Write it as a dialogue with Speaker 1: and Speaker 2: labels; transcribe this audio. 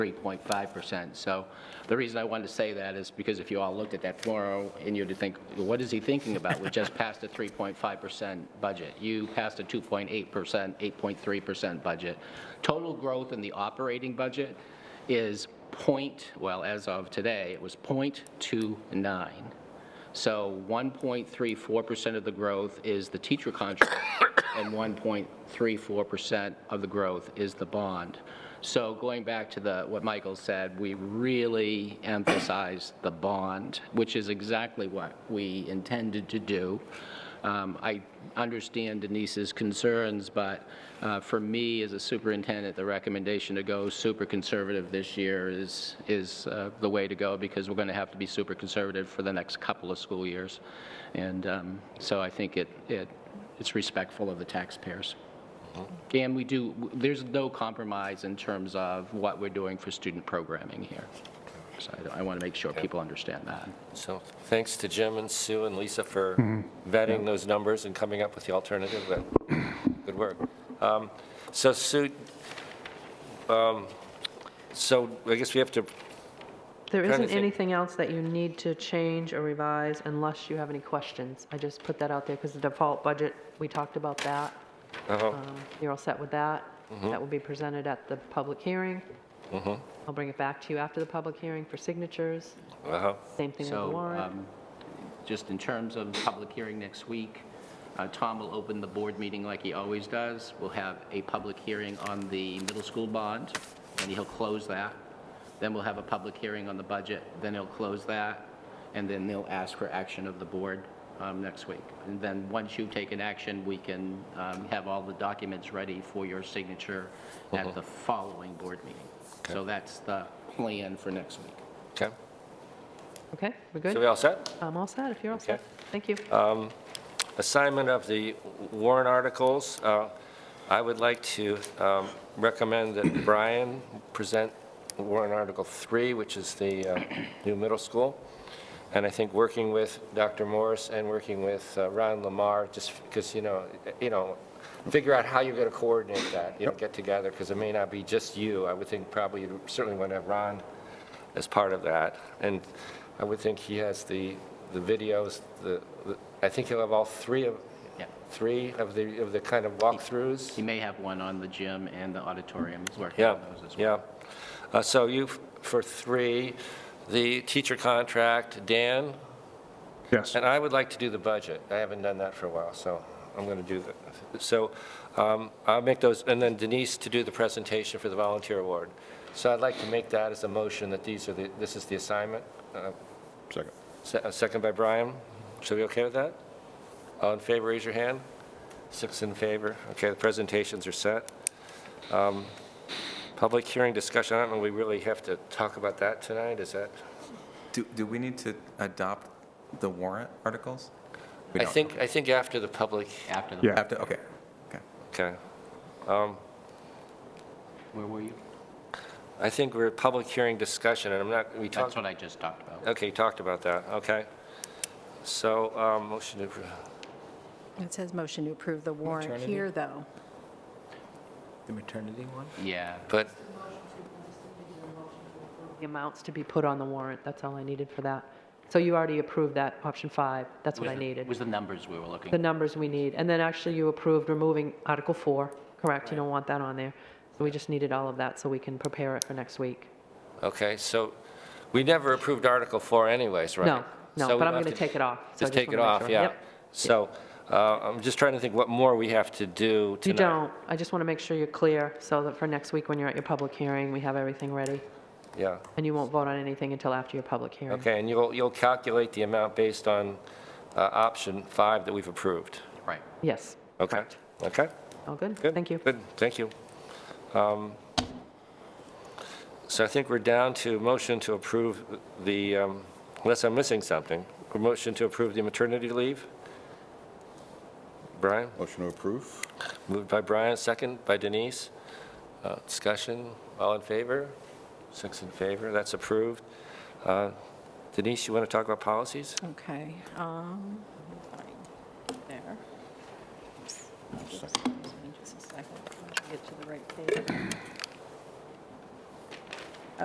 Speaker 1: 3.5%. So the reason I wanted to say that is because if you all looked at that tomorrow and you'd think, what is he thinking about? We just passed a 3.5% budget. You passed a 2.8%, 8.3% budget. Total growth in the operating budget is point, well, as of today, it was .29. So 1.34% of the growth is the teacher contract, and 1.34% of the growth is the bond. So going back to the, what Michael said, we really emphasize the bond, which is exactly what we intended to do. Um, I understand Denise's concerns, but uh, for me, as a superintendent, the recommendation to go super conservative this year is, is uh, the way to go, because we're going to have to be super conservative for the next couple of school years. And um, so I think it, it it's respectful of the taxpayers. And we do, there's no compromise in terms of what we're doing for student programming here. So I- I want to make sure people understand that.
Speaker 2: So thanks to Jim and Sue and Lisa for vetting those numbers and coming up with the alternative. Well, Good work. Um, So Sue, um, so I guess we have to,
Speaker 3: There
Speaker 2: Trying to
Speaker 3: isn't
Speaker 2: think.
Speaker 3: anything else that you need to change or revise unless you have any questions. I just put that out there because the default budget, we talked about that.
Speaker 2: uh-huh,
Speaker 3: Um, You're all set with that?
Speaker 2: Mm-hmm.
Speaker 3: That will be presented at the public hearing. I'll bring it back to you after the public hearing for signatures.
Speaker 2: uh-huh,
Speaker 3: Same thing with the
Speaker 1: So
Speaker 3: warrant.
Speaker 1: um, just in terms of public hearing next week, uh, Tom will open the board meeting like he always does. We'll have a public hearing on the middle school bond, and he'll close that. Then we'll have a public hearing on the budget, then he'll close that, and then they'll ask for action of the board um, next week. And then, once you've taken action, we can um, have all the documents ready for your signature at the following board meeting. So that's the plan for next week.
Speaker 2: okay.
Speaker 3: Okay, we're
Speaker 2: So we
Speaker 3: good?
Speaker 2: all set?
Speaker 3: I'm all set, if you're all
Speaker 2: Okay. Uh,
Speaker 3: set. Thank you.
Speaker 2: Assignment of the warrant articles. Uh, I would like to um, recommend that Brian present warrant Article 3, which is the uh, new middle school. And I think working with Dr. Morris and working with uh, Ron Lamar, just because, you know, you know, figure out how you're going to coordinate that, you know, get together, because it may not be just you. I would think probably, you certainly want to have Ron as part of that. And I would think he has the, the videos, the, the- I think he'll have all three of,
Speaker 1: Yeah.
Speaker 2: three of the, of the kind of walkthroughs.
Speaker 1: He may have one on the gym and the auditorium. He's working
Speaker 2: Yeah,
Speaker 1: on those as well.
Speaker 2: yeah. Uh, So you, f- for three, the teacher contract, Dan,
Speaker 4: Yes.
Speaker 2: and I would like to do the budget. I haven't done that for a while, so I'm going to do that. So um, I'll make those, and then Denise to do the presentation for the volunteer award. So I'd like to make that as a motion that these are the, this is the assignment. Uh,
Speaker 4: Second.
Speaker 2: se- a Second by Brian. So we okay with that? All in favor, raise your hand. Six in favor. Okay, the presentations are set. Um, Public hearing discussion, I don't know, we really have to talk about that tonight, is that?
Speaker 5: Do, do we need to adopt the warrant articles? We
Speaker 2: I
Speaker 5: don't.
Speaker 2: think, I think after the public,
Speaker 1: After the,
Speaker 4: Yeah.
Speaker 5: Have to, okay, okay.
Speaker 2: okay.
Speaker 1: where were you?
Speaker 2: I think we're at public hearing discussion, and I'm not, we
Speaker 1: That's
Speaker 2: talked,
Speaker 1: what I just talked about.
Speaker 2: okay, you talked about that, okay. So, um, motion to, appro-
Speaker 6: It says motion to approve the warrant here, though.
Speaker 5: The maternity one?
Speaker 1: Yeah.
Speaker 2: but,
Speaker 3: The amounts to be put on the warrant, that's all I needed for that. So you already approved that, option five, that's what I needed.
Speaker 1: Was the numbers we were
Speaker 3: the
Speaker 1: looking.
Speaker 3: numbers we need. And then actually, you approved removing Article 4, correct? You don't want that on there. So we just needed all of that so we can prepare it for next week.
Speaker 2: okay, so, we never approved Article 4 anyways, right?
Speaker 3: No, no,
Speaker 2: So we
Speaker 3: but I'm
Speaker 2: have
Speaker 3: going to take it off. So I
Speaker 2: Just take it
Speaker 3: wanna make
Speaker 2: off,
Speaker 3: sure.
Speaker 2: yeah.
Speaker 3: Yep.
Speaker 2: So, uh, I'm just trying to think what more we have to do tonight.
Speaker 3: You don't. I just want to make sure you're clear so that for next week, when you're at your public hearing, we have everything ready.
Speaker 2: Yeah,
Speaker 3: And you won't vote on anything until after your public hearing.
Speaker 2: okay, and you'll, you'll calculate the amount based on uh, option 5 that we've approved,
Speaker 1: Right.
Speaker 3: Yes.
Speaker 2: okay? Okay?
Speaker 3: All good?
Speaker 2: Good.
Speaker 3: Thank you.
Speaker 2: Good, thank you. Um, So I think we're down to motion to approve the, um, unless I'm missing something, a motion to approve the maternity leave? Brian,
Speaker 4: Motion to approve?
Speaker 2: moved by Brian, second by Denise. Uh, Discussion, all in favor? Six in favor, that's approved. Uh, Denise, you want to talk about policies?
Speaker 6: Okay. um, fine, There. Just a second, Get to the right page.